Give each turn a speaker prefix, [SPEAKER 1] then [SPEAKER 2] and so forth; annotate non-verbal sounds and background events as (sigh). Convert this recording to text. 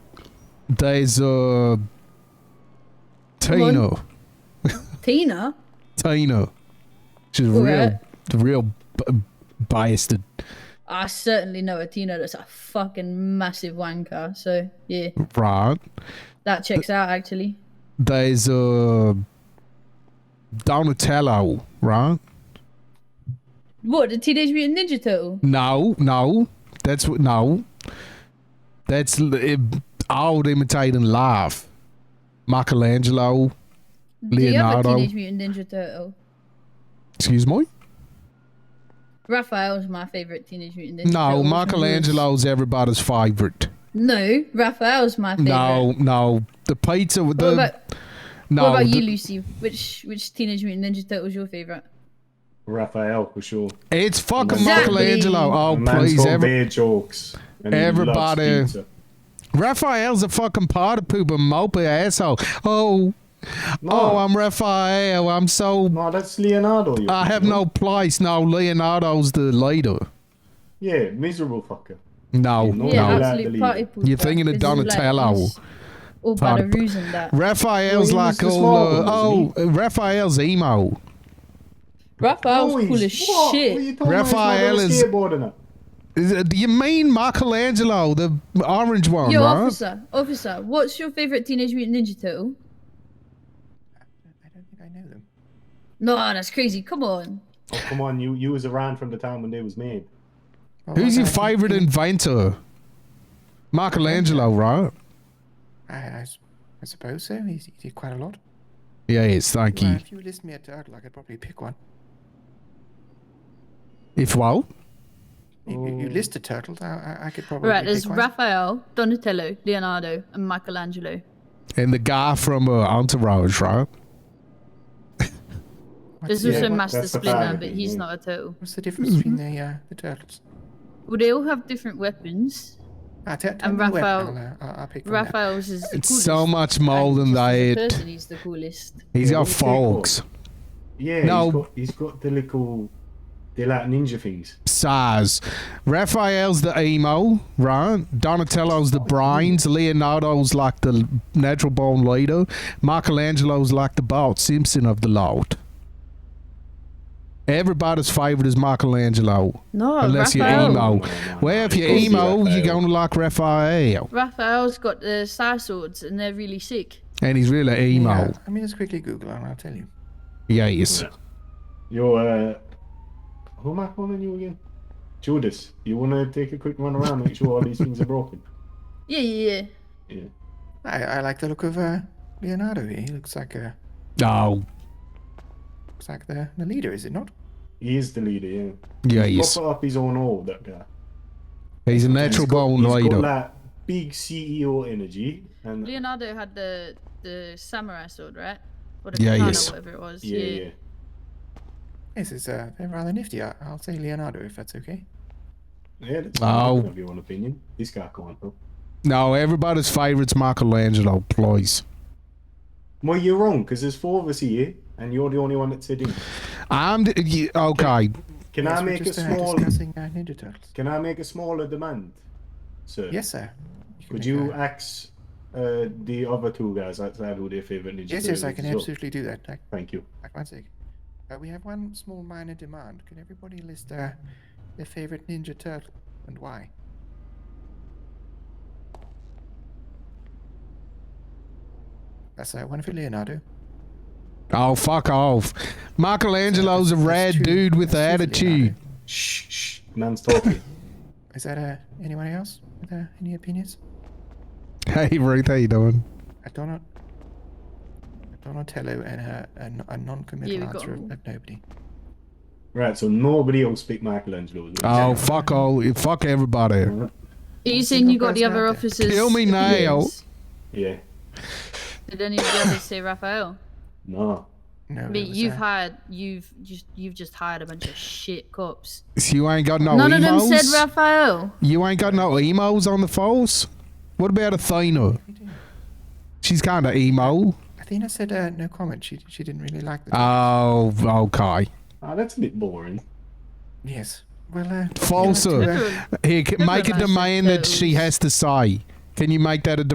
[SPEAKER 1] There's uh, Tino.
[SPEAKER 2] Tina?
[SPEAKER 1] Tino. She's a
[SPEAKER 2] All
[SPEAKER 1] real,
[SPEAKER 2] right.
[SPEAKER 1] real b- biased.
[SPEAKER 2] I certainly know a Tina that's a fucking massive wanker. So, yeah,
[SPEAKER 1] Right.
[SPEAKER 2] that checks out actually.
[SPEAKER 1] There's uh, Donatello. Right.
[SPEAKER 2] What, the Teenage Mutant Ninja Turtle?
[SPEAKER 1] No, no. That's what. No. That's l- it, all imitating live. Michelangelo.
[SPEAKER 2] The
[SPEAKER 1] Leonardo.
[SPEAKER 2] other Teenage Mutant Ninja Turtle.
[SPEAKER 1] Excuse me.
[SPEAKER 2] Raphael's my favorite Teenage Mutant Ninja
[SPEAKER 1] No,
[SPEAKER 2] Turtle.
[SPEAKER 1] Michelangelo's everybody's favorite.
[SPEAKER 2] No, Raphael's my favorite.
[SPEAKER 1] No, no. The pizza with
[SPEAKER 2] What
[SPEAKER 1] the
[SPEAKER 2] about,
[SPEAKER 1] no.
[SPEAKER 2] what about you,
[SPEAKER 1] the-
[SPEAKER 2] Lucy? Which which Teenage Mutant Ninja Turtle's your favorite?
[SPEAKER 3] Raphael for sure.
[SPEAKER 1] it's fucking
[SPEAKER 2] Exactly.
[SPEAKER 1] Michelangelo. Oh
[SPEAKER 3] The man's
[SPEAKER 1] please,
[SPEAKER 3] got
[SPEAKER 1] every,
[SPEAKER 3] beer jokes. And he loves
[SPEAKER 1] everybody-
[SPEAKER 3] pizza.
[SPEAKER 1] Raphael's a fucking party pooper, mopey asshole. Oh, oh, I'm Raphael. I'm so
[SPEAKER 3] No, that's Leonardo. you're
[SPEAKER 1] I have
[SPEAKER 3] thinking
[SPEAKER 1] no
[SPEAKER 3] of.
[SPEAKER 1] place. No, Leonardo's the leader.
[SPEAKER 3] Yeah, miserable fucker.
[SPEAKER 1] No,
[SPEAKER 3] You know
[SPEAKER 2] yeah,
[SPEAKER 3] that.
[SPEAKER 1] no.
[SPEAKER 2] absolute party pooper.
[SPEAKER 1] You're thinking of
[SPEAKER 2] This is
[SPEAKER 1] Donatello.
[SPEAKER 2] Like, he's all by
[SPEAKER 1] Party
[SPEAKER 2] the
[SPEAKER 1] poo-
[SPEAKER 2] ruse and that.
[SPEAKER 1] Raphael's
[SPEAKER 3] Well, he was
[SPEAKER 1] like
[SPEAKER 3] the
[SPEAKER 1] all.
[SPEAKER 3] small
[SPEAKER 1] Uh,
[SPEAKER 3] one,
[SPEAKER 1] oh, Raphael's emo.
[SPEAKER 2] Raphael's
[SPEAKER 3] No,
[SPEAKER 2] cool
[SPEAKER 3] he's-
[SPEAKER 2] as
[SPEAKER 3] what?
[SPEAKER 2] shit.
[SPEAKER 3] What are you talking about? He's not
[SPEAKER 1] Raphael
[SPEAKER 3] on a
[SPEAKER 1] is-
[SPEAKER 3] skateboard and that.
[SPEAKER 1] Is it- Do you mean Michelangelo, the orange one,
[SPEAKER 2] Yo,
[SPEAKER 1] right?
[SPEAKER 2] officer, officer, what's your favorite Teenage Mutant Ninja Turtle?
[SPEAKER 4] I don't think I know them.
[SPEAKER 2] No, that's crazy. Come on.
[SPEAKER 3] Oh, come on, you you was around from the time when they was made.
[SPEAKER 4] Well,
[SPEAKER 1] Who's
[SPEAKER 4] I
[SPEAKER 1] your
[SPEAKER 4] don't think-
[SPEAKER 1] favorite inventor? Michelangelo, right?
[SPEAKER 4] I, I s- I suppose so. He, he did quite a lot.
[SPEAKER 1] Yes, thank
[SPEAKER 4] Well,
[SPEAKER 1] you.
[SPEAKER 4] if you list me a turtle, I could probably pick one.
[SPEAKER 1] If what?
[SPEAKER 4] If you, you list a turtle, I, I- I could probably
[SPEAKER 2] Right,
[SPEAKER 4] pick
[SPEAKER 2] there's
[SPEAKER 4] one.
[SPEAKER 2] Raphael, Donatello, Leonardo, and Michelangelo.
[SPEAKER 1] And the guy from uh, Entourage, right?
[SPEAKER 2] There's
[SPEAKER 4] What's the-
[SPEAKER 2] also
[SPEAKER 3] what-
[SPEAKER 2] Master
[SPEAKER 3] that's the
[SPEAKER 2] Splinter,
[SPEAKER 3] value,
[SPEAKER 2] but he's
[SPEAKER 3] yeah.
[SPEAKER 2] not a turtle.
[SPEAKER 4] What's the difference between the uh, the turtles?
[SPEAKER 2] Well, they all have different weapons.
[SPEAKER 4] Ah, t-
[SPEAKER 2] And Raphael-
[SPEAKER 4] I'll, uh, I'll, I'll pick from that.
[SPEAKER 2] Raphael's is the
[SPEAKER 1] It's
[SPEAKER 2] coolest.
[SPEAKER 1] so much more than
[SPEAKER 2] and just as a
[SPEAKER 1] that.
[SPEAKER 2] Person, he's the coolest.
[SPEAKER 1] He's
[SPEAKER 3] Yeah,
[SPEAKER 1] got
[SPEAKER 3] what's he called?
[SPEAKER 1] forks,
[SPEAKER 3] Yeah,
[SPEAKER 1] No.
[SPEAKER 3] he's got, he's got the little, they're like ninja things.
[SPEAKER 1] size. Raphael's the emo, right? Donatello's the brains. Leonardo's like the natural born leader. Michelangelo's like the Bart Simpson of the lot. Everybody's favorite is Michelangelo,
[SPEAKER 2] No,
[SPEAKER 1] unless you're
[SPEAKER 2] Oh, Raphael.
[SPEAKER 1] emo.
[SPEAKER 3] No, no, no,
[SPEAKER 1] Well, if
[SPEAKER 3] it's
[SPEAKER 1] you're
[SPEAKER 3] gotta be
[SPEAKER 1] emo, you're
[SPEAKER 3] Raphael.
[SPEAKER 1] gonna like Raphael,
[SPEAKER 2] Raphael's got the star swords, and they're really sick.
[SPEAKER 1] and he's really
[SPEAKER 4] Yeah,
[SPEAKER 1] emo.
[SPEAKER 4] I mean, just quickly Google and I'll tell you.
[SPEAKER 1] Yes.
[SPEAKER 3] You're, uh, who am I calling you again? Judas, you want to take a quick run around, make sure all these things are broken? (laughs)
[SPEAKER 2] Yeah, yeah, yeah.
[SPEAKER 3] Yeah.
[SPEAKER 4] I, I like the look of uh, Leonardo here. He looks like a
[SPEAKER 1] No.
[SPEAKER 4] looks like the, the leader, is it not?
[SPEAKER 3] He is the leader, yeah.
[SPEAKER 1] Yes.
[SPEAKER 3] Proper up his own all, that guy.
[SPEAKER 1] He's a natural born
[SPEAKER 3] He's got
[SPEAKER 1] leader.
[SPEAKER 3] like big CEO energy, and yeah,
[SPEAKER 2] Leonardo had the the samurai sword, right? Or the
[SPEAKER 1] Yeah,
[SPEAKER 2] katana,
[SPEAKER 1] yes.
[SPEAKER 2] whatever it was. Yeah.
[SPEAKER 3] yeah.
[SPEAKER 4] This is uh, they're rather nifty. I, I'll say Leonardo if that's okay.
[SPEAKER 3] Yeah, that's
[SPEAKER 1] Oh.
[SPEAKER 3] oh. your own opinion. This guy can't help.
[SPEAKER 1] No, everybody's favorite's Michelangelo, please.
[SPEAKER 3] Well, you're wrong, because there's four of us here, and you're the only one that's sitting.
[SPEAKER 1] I'm the, you- okay.
[SPEAKER 3] Can
[SPEAKER 4] Yes,
[SPEAKER 3] I
[SPEAKER 4] we're
[SPEAKER 3] make a
[SPEAKER 4] just, uh,
[SPEAKER 3] small?
[SPEAKER 4] discussing uh, Ninja Turtles.
[SPEAKER 3] Can I make a smaller demand, sir?
[SPEAKER 4] Yes, sir. can
[SPEAKER 3] Could
[SPEAKER 4] make
[SPEAKER 3] you
[SPEAKER 4] a-
[SPEAKER 3] ask uh, the other two guys outside who their favorite ninja
[SPEAKER 4] Yes, yes,
[SPEAKER 3] Turtle
[SPEAKER 4] I
[SPEAKER 3] is
[SPEAKER 4] can
[SPEAKER 3] as well?
[SPEAKER 4] absolutely do that. Like,
[SPEAKER 3] Thank you.
[SPEAKER 4] like one sec. Uh, we have one small minor demand. Can everybody list uh, their favorite Ninja Turtle and why? That's uh, one for Leonardo.
[SPEAKER 1] Oh, fuck off. Michelangelo's a
[SPEAKER 4] That's
[SPEAKER 1] rad
[SPEAKER 4] two-
[SPEAKER 1] dude with the
[SPEAKER 4] that's two for
[SPEAKER 1] attitude.
[SPEAKER 4] Leonardo.
[SPEAKER 3] Shh, shh. Man's talking. (laughs)
[SPEAKER 4] Is that uh, anyone else with uh, any opinions?
[SPEAKER 1] Hey, Ruth, how you doing?
[SPEAKER 4] A Donat. Donatello and her a, n- a non-committal
[SPEAKER 2] Yeah, we got
[SPEAKER 4] answer
[SPEAKER 2] them
[SPEAKER 4] of, of nobody.
[SPEAKER 3] right, so nobody else speak Michelangelo. as well.
[SPEAKER 1] Oh, fuck all. Fuck everybody.
[SPEAKER 2] Are you saying you got the other
[SPEAKER 4] Leonardo.
[SPEAKER 2] officers?
[SPEAKER 1] Kill me now.
[SPEAKER 2] opinions?
[SPEAKER 3] Yeah.
[SPEAKER 2] Did any of the others say Raphael?
[SPEAKER 3] No.
[SPEAKER 4] No,
[SPEAKER 2] But
[SPEAKER 4] it was,
[SPEAKER 2] you've
[SPEAKER 4] uh,
[SPEAKER 2] hired, you've just, you've just hired a bunch of shit cops.
[SPEAKER 1] So you ain't got no
[SPEAKER 2] None
[SPEAKER 1] emos?
[SPEAKER 2] of them said Raphael.
[SPEAKER 1] you ain't got no emos on the force? What about Athena? She's kind of emo.
[SPEAKER 4] Athena said uh, no comment. She she didn't really like the.
[SPEAKER 1] Oh, okay.
[SPEAKER 3] Ah, that's a bit boring.
[SPEAKER 4] yes. Well, uh,
[SPEAKER 1] False,
[SPEAKER 4] you know, to,
[SPEAKER 1] sir. Here, c- make a
[SPEAKER 2] Everyone
[SPEAKER 1] demand that
[SPEAKER 2] said
[SPEAKER 1] she
[SPEAKER 2] those.
[SPEAKER 1] has to say. Can you make that a